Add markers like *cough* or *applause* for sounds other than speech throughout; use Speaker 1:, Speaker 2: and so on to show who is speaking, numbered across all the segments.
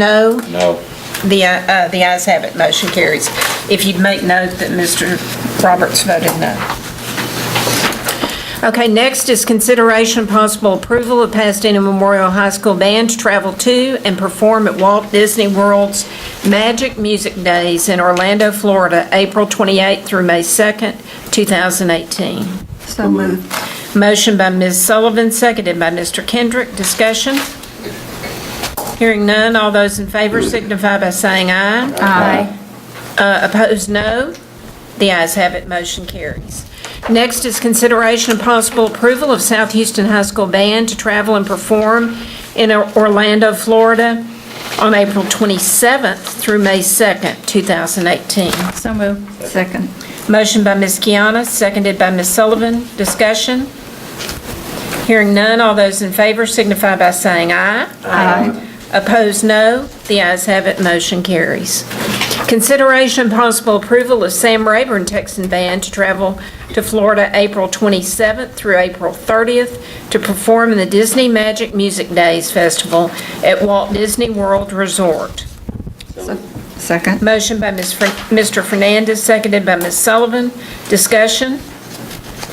Speaker 1: No,
Speaker 2: No.
Speaker 1: the, uh, the ayes have it, motion carries. If you'd make note that Mr. Roberts voted no.
Speaker 3: Okay, next is consideration and possible approval of Pasadena Memorial High School Band to travel to and perform at Walt Disney World's Magic Music Days in Orlando, Florida, April 28th through May 2nd, 2018.
Speaker 4: So moved.
Speaker 3: Motion by Ms. Sullivan, seconded by Mr. Kendrick. Discussion? Hearing none, all those in favor signify by saying aye. Aye. Opposed, no. The ayes have it, motion carries. Next is consideration and possible approval of South Houston High School Band to travel and perform in Orlando, Florida on April 27th through May 2nd, 2018.
Speaker 4: So moved. Second.
Speaker 3: Motion by Ms. Kiana, seconded by Ms. Sullivan. Discussion? Hearing none, all those in favor signify by saying aye. Aye. Opposed, no. The ayes have it, motion carries. Consideration and possible approval of Sam Rayburn Texan Band to travel to Florida April 27th through April 30th to perform in the Disney Magic Music Days Festival at Walt Disney World Resort.
Speaker 4: Second.
Speaker 3: Motion by Ms. Fer- Mr. Fernandez, seconded by Ms. Sullivan. Discussion?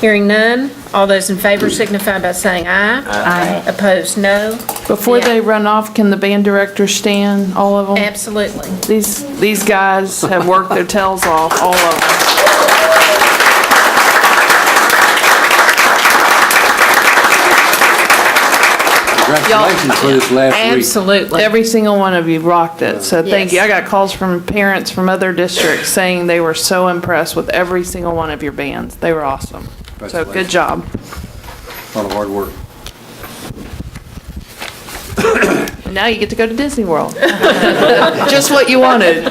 Speaker 3: Hearing none. All those in favor signify by saying aye. Aye. Opposed, no.
Speaker 5: Before
Speaker 3: Yeah.
Speaker 5: they run off, can the band director stand, all of them?
Speaker 3: Absolutely.
Speaker 5: These, these guys have worked their tails off, all of them.
Speaker 2: Congratulations for this last week.
Speaker 3: Absolutely.
Speaker 5: Every single one of you rocked it, so thank you. I got calls from parents from other districts saying they were so impressed with every single one of your bands. They were awesome. So good
Speaker 2: Congratulations.
Speaker 5: job.
Speaker 2: A lot of hard work.
Speaker 5: Now you get to go to Disney World. *laughs* Just what you wanted.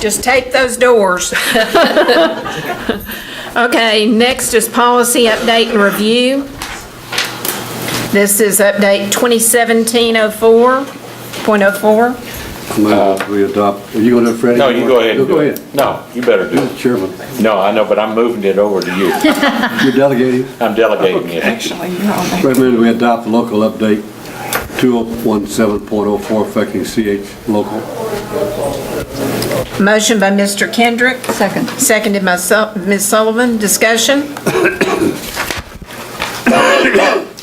Speaker 3: Just take those *laughs* doors. Okay, next is policy update and review. This is update 2017-04.04.
Speaker 2: Move we adopt, are you going to Freddie?
Speaker 6: No, you go ahead and do
Speaker 2: Go
Speaker 6: it.
Speaker 2: ahead.
Speaker 6: No, you better do it.
Speaker 2: Chairman,
Speaker 6: No, I know, but I'm moving it over to you.
Speaker 2: you're delegating.
Speaker 6: I'm delegating it.
Speaker 4: Actually, you're on there.
Speaker 2: Recommend we adopt the local update 2017.04 affecting CH local.
Speaker 3: Motion by Mr. Kendrick.
Speaker 4: Second.
Speaker 3: Seconded by Su- Ms. Sullivan. Discussion?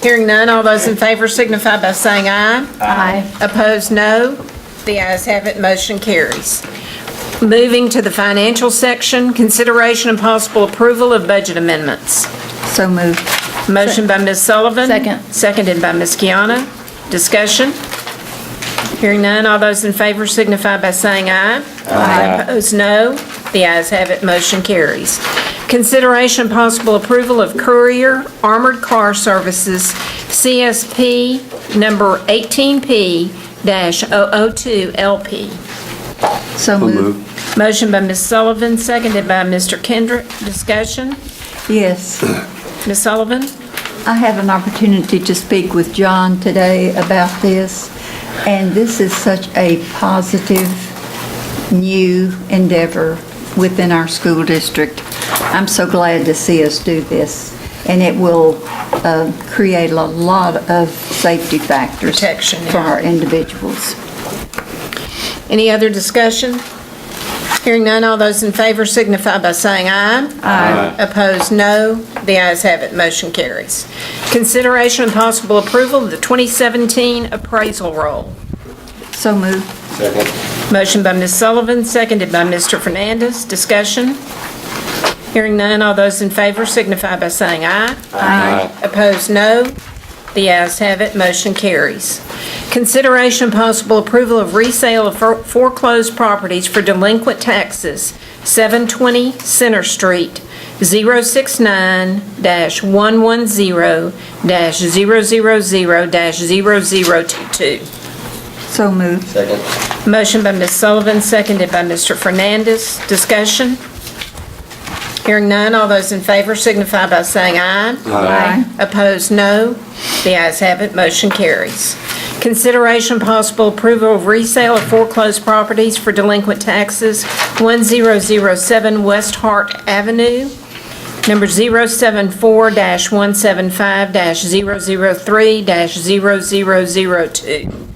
Speaker 3: Hearing none, all those in favor signify by saying aye. Aye. Opposed, no. The ayes have it, motion carries. Moving to the financial section, consideration and possible approval of budget amendments.
Speaker 4: So moved.
Speaker 3: Motion by Ms. Sullivan.
Speaker 4: Second.
Speaker 3: Seconded by Ms. Kiana. Discussion? Hearing none, all those in favor signify by saying aye. Aye. Opposed, no. The ayes have it, motion carries. Consideration possible approval of Courier Armored Car Services, CSP number 18P-002LP.
Speaker 4: So
Speaker 2: So
Speaker 4: moved.
Speaker 2: moved.
Speaker 3: Motion by Ms. Sullivan, seconded by Mr. Kendrick. Discussion?
Speaker 4: Yes.
Speaker 3: Ms. Sullivan?
Speaker 4: I had an opportunity to speak with John today about this, and this is such a positive new endeavor within our school district. I'm so glad to see us do this, and it will uh, create a lot of safety factors.
Speaker 3: Protection, yeah.
Speaker 4: For our individuals.
Speaker 3: Any other discussion? Hearing none, all those in favor signify by saying aye. Aye. Opposed, no. The ayes have it, motion carries. Consideration and possible approval of the 2017 appraisal roll.
Speaker 4: So moved.
Speaker 3: Motion by Ms. Sullivan, seconded by Mr. Fernandez. Discussion? Hearing none, all those in favor signify by saying aye. Aye. Opposed, no. The ayes have it, motion carries. Consideration possible approval of resale of for- foreclosed properties for delinquent taxes, 720 Center Street, 069-110-000-0022.
Speaker 4: So moved.
Speaker 3: Motion by Ms. Sullivan, seconded by Mr. Fernandez. Discussion? Hearing none, all those in favor signify by saying aye.
Speaker 4: Aye.
Speaker 3: Opposed, no. The ayes have it, motion carries. Consideration possible approval of resale of foreclosed properties for delinquent taxes, 1007 West Hart Avenue, number 074-175-003-0002.